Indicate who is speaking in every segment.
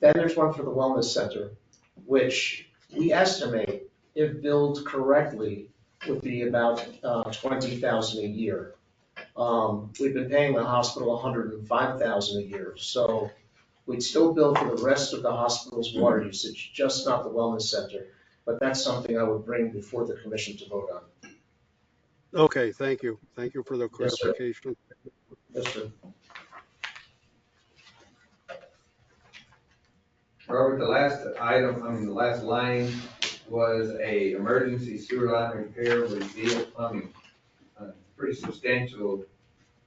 Speaker 1: Then there's one for the wellness center, which we estimate, if billed correctly, would be about uh, twenty thousand a year. Um, We've been paying the hospital hundred and five thousand a year, so we'd still bill for the rest of the hospital's water usage, just not the wellness center. But that's something I would bring before the commission to vote on.
Speaker 2: Okay, thank you. Thank you for the
Speaker 1: Yes, sir.
Speaker 2: clarification.
Speaker 1: Yes, sir.
Speaker 3: Robert, the last item, I mean, the last line was a emergency sewer line repair with Deal Plumbing. Uh, Pretty substantial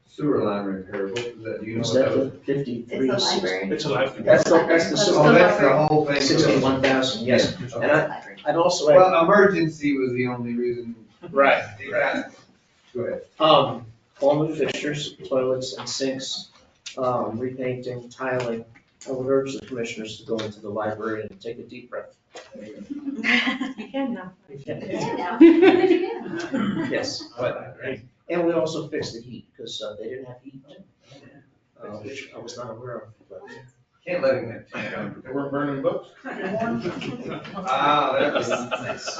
Speaker 3: sewer line repair. What was that? Do you know
Speaker 1: Is
Speaker 3: what
Speaker 1: that
Speaker 3: that was?
Speaker 1: the fifty-three?
Speaker 4: It's the library.
Speaker 5: It's a life.
Speaker 1: That's the, that's the,
Speaker 4: That's
Speaker 1: sewer
Speaker 3: Oh,
Speaker 1: line.
Speaker 3: that's the whole thing.
Speaker 1: Sixty-one thousand, yes. And I, I'd also add.
Speaker 3: Well, emergency was the only reason.
Speaker 1: Right.
Speaker 3: Go ahead.
Speaker 1: Um, all new fixtures, toilets and sinks, um, repainting, tiling. I would urge the commissioners to go into the library and take a deep breath.
Speaker 6: You can now.
Speaker 1: Yes, but, and we also fixed the heat, because they didn't have heat, uh, which I was not aware of, but.
Speaker 3: Oh, Can't let him have.
Speaker 5: They weren't burning books?
Speaker 3: Ah, that was nice.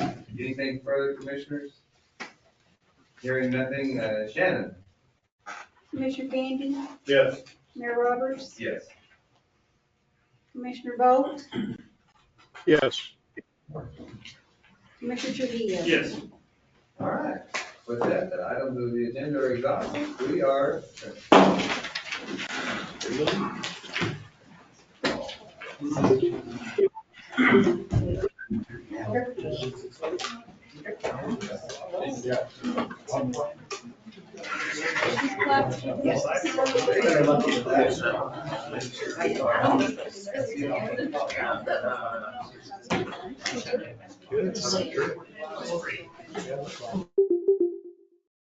Speaker 3: Uh, Anything further, commissioners? Hearing nothing, uh, Shannon?
Speaker 7: Commissioner Gandy,
Speaker 5: Yes.
Speaker 7: Mayor Roberts,
Speaker 3: Yes.
Speaker 7: Commissioner Bolt,
Speaker 2: Yes,
Speaker 7: Commissioner Trujillo.
Speaker 5: Yes.
Speaker 3: All right, with that, the items of the agenda are exhausted, we are.
Speaker 1: Better luck than bad.